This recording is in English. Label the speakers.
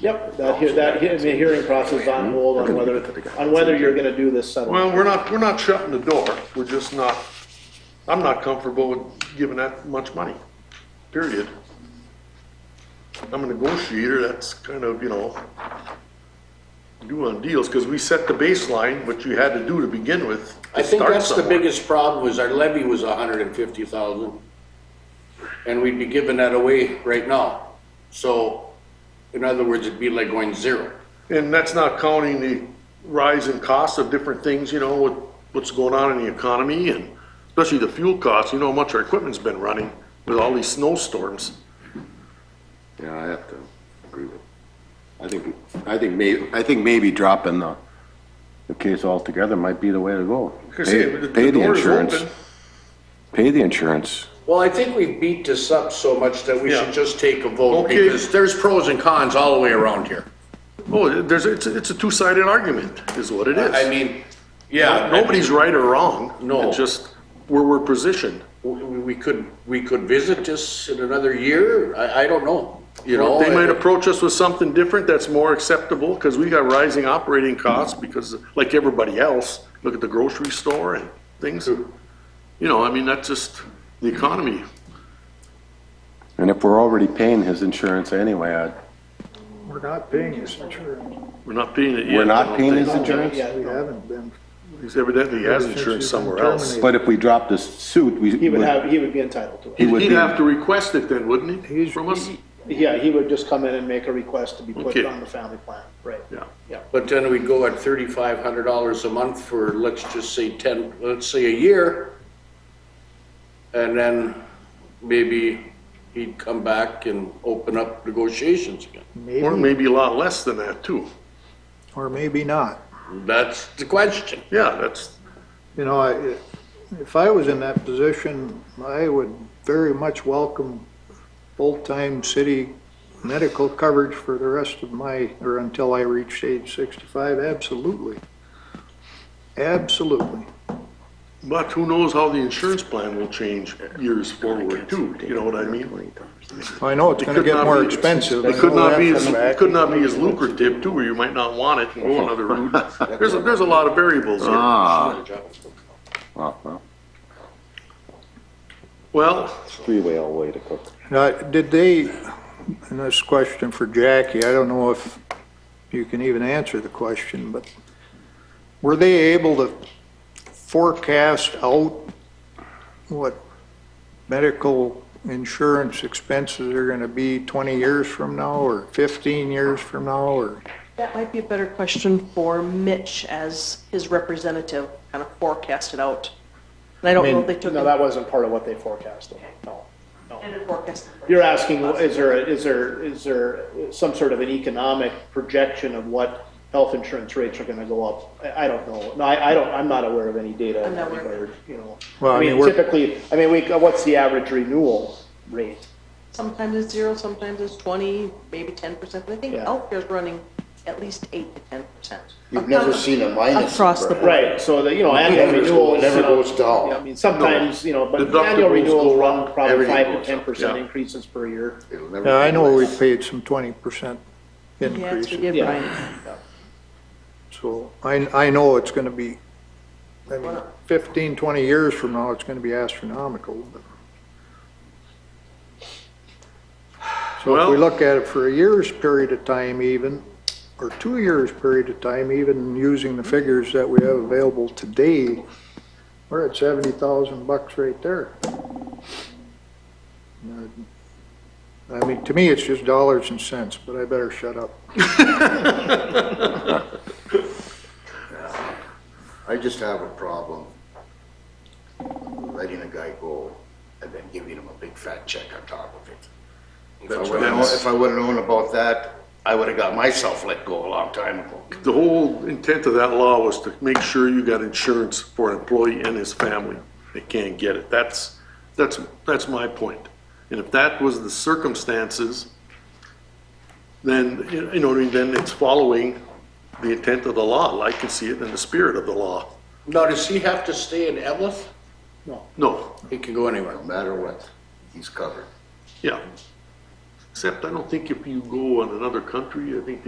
Speaker 1: Yep, that, hea- that, hea- I mean, hearing process is on hold on whether, on whether you're gonna do this settlement.
Speaker 2: Well, we're not, we're not shutting the door. We're just not, I'm not comfortable with giving that much money, period. I'm a negotiator, that's kind of, you know, do on deals, because we set the baseline, what you had to do to begin with. to
Speaker 3: I think
Speaker 2: start
Speaker 3: that's the
Speaker 2: somewhere.
Speaker 3: biggest problem, was our levy was a hundred and fifty thousand. And we'd be giving that away right now. So, in other words, it'd be like going zero.
Speaker 2: And that's not counting the rise in costs of different things, you know, with what's going on in the economy and especially the fuel costs, you know how much our equipment's been running with all these snowstorms.
Speaker 4: Yeah, I have to agree with, I think, I think may, I think maybe dropping the, the case altogether might be the way to go.
Speaker 2: Because
Speaker 4: Pay-
Speaker 2: the
Speaker 4: pay
Speaker 2: the door is
Speaker 4: insurance.
Speaker 2: open.
Speaker 4: Pay the insurance.
Speaker 3: Well, I think we beat this up so much that we
Speaker 2: Yeah.
Speaker 3: should just take a vote,
Speaker 2: Okay.
Speaker 3: because there's pros and cons all the way around here.
Speaker 2: Oh, there's, it's, a- it's a two-sided argument, is what it
Speaker 3: I
Speaker 2: is.
Speaker 3: mean, yeah.
Speaker 2: Nobody's right or wrong.
Speaker 3: No.
Speaker 2: It's just where we're positioned.
Speaker 3: We we could, we could visit this in another year, I, I don't know, you know?
Speaker 2: They might approach us with something different that's more acceptable, because we got rising operating costs, because like everybody else, look at the grocery store and things. You know, I mean, that's just the economy.
Speaker 4: And if we're already paying his insurance anyway, I'd,
Speaker 5: We're not paying his insurance.
Speaker 2: We're not paying it yet.
Speaker 4: we're
Speaker 2: I
Speaker 4: not
Speaker 2: don't
Speaker 4: paying
Speaker 2: think.
Speaker 4: his insurance?
Speaker 1: Yeah,
Speaker 5: We haven't been.
Speaker 2: He's Evidently, he has insurance somewhere else.
Speaker 4: But if we drop this suit, we.
Speaker 1: He would have, he would be entitled to it.
Speaker 4: He would
Speaker 2: He'd
Speaker 4: be-
Speaker 2: have to request it then, wouldn't he,
Speaker 5: He's-
Speaker 2: from us?
Speaker 1: Yeah, he would just come in and make a request to be put
Speaker 2: Okay.
Speaker 1: on the family plan, right?
Speaker 2: Yeah.
Speaker 1: Yeah.
Speaker 3: But then we go at thirty-five hundred dollars a month for, let's just say ten, let's say a year. And then maybe he'd come back and open up negotiations again.
Speaker 2: Or
Speaker 5: Maybe,
Speaker 2: maybe a lot less than that, too.
Speaker 5: or maybe not.
Speaker 3: That's the question.
Speaker 2: Yeah, that's,
Speaker 5: You know, I, if I was in that position, I would very much welcome full-time city medical coverage for the rest of my, or until I reached age sixty-five, absolutely. Absolutely.
Speaker 2: But who knows how the insurance plan will change years forward too, you know what I mean?
Speaker 5: I know it's gonna
Speaker 2: It could
Speaker 5: get
Speaker 2: not
Speaker 5: more
Speaker 2: be-
Speaker 5: expensive.
Speaker 2: It
Speaker 5: I
Speaker 2: could
Speaker 5: know
Speaker 2: not
Speaker 5: that
Speaker 2: be,
Speaker 5: for a
Speaker 2: as it
Speaker 5: fact.
Speaker 2: could not be as lucrative too, or you might not want it and go another route. There's, a- there's a lot of variables here.
Speaker 4: Ah, well, well,
Speaker 2: Well,
Speaker 4: it's three-way all the way to cook.
Speaker 5: Now, did they, and this question for Jackie, I don't know if you can even answer the question, but were they able to forecast out what medical insurance expenses are gonna be 20 years from now, or 15 years from now, or?
Speaker 6: That might be a better question for Mitch as his representative, kind of forecast it out. And I don't know if they took.
Speaker 1: No, that wasn't part of what they forecasted, no.
Speaker 6: and forecast.
Speaker 1: You're asking, is there, is there, is there some sort of an economic projection of what health insurance rates are gonna go up? I, I don't know, no, I, I don't, I'm not aware of any data in
Speaker 6: I'm
Speaker 1: that
Speaker 6: not aware of
Speaker 1: regard, you know.
Speaker 5: Well, I
Speaker 1: I
Speaker 5: mean,
Speaker 1: mean,
Speaker 5: we're-
Speaker 1: typically, I mean, we, uh, what's the average renewal rate?
Speaker 6: Sometimes it's zero, sometimes it's twenty, maybe ten percent, but I think
Speaker 1: Yeah.
Speaker 6: healthcare's running at least eight to ten percent.
Speaker 7: You've never seen a minus.
Speaker 6: Across the board.
Speaker 1: Right, so the, you know, annual
Speaker 7: Numbers go-
Speaker 1: renewals.
Speaker 7: never
Speaker 1: you know,
Speaker 7: goes down.
Speaker 1: yeah, I mean, sometimes, you know, but
Speaker 2: Deductibles
Speaker 1: annual renewals
Speaker 2: go
Speaker 1: run probably
Speaker 7: everything
Speaker 1: five to
Speaker 7: goes
Speaker 1: ten
Speaker 7: up,
Speaker 1: percent
Speaker 2: yeah.
Speaker 1: increases per year.
Speaker 7: It'll never
Speaker 5: Now, I
Speaker 7: be
Speaker 5: know
Speaker 7: less.
Speaker 5: we paid some 20%
Speaker 6: Yes, we
Speaker 5: increases,
Speaker 6: did,
Speaker 1: Yeah.
Speaker 6: Brian.
Speaker 5: so I, I know it's gonna be, I mean, 15, 20 years from now, it's gonna be astronomical, but. So if we
Speaker 2: well,
Speaker 5: look at it for a year's period of time even, or two years' period of time even, using the figures that we have available today, we're at seventy thousand bucks right there. I mean, to me, it's just dollars and cents, but I better shut up.
Speaker 7: I just have a problem letting a guy go and then giving him a big fat check on top of it. If I would've known- If I would've known about that, I would've got myself let go a long time ago.
Speaker 2: the whole intent of that law was to make sure you got insurance for an employee and his family. They can't get it. That's, that's, that's my point. And if that was the circumstances, then, you know, then it's following the intent of the law. I can see it in the spirit of the law.
Speaker 3: Now, does he have to stay in Evlith?
Speaker 2: No,
Speaker 3: He can go anywhere.
Speaker 7: No matter what, he's covered.
Speaker 2: yeah. Except I don't think if you go on another country, I think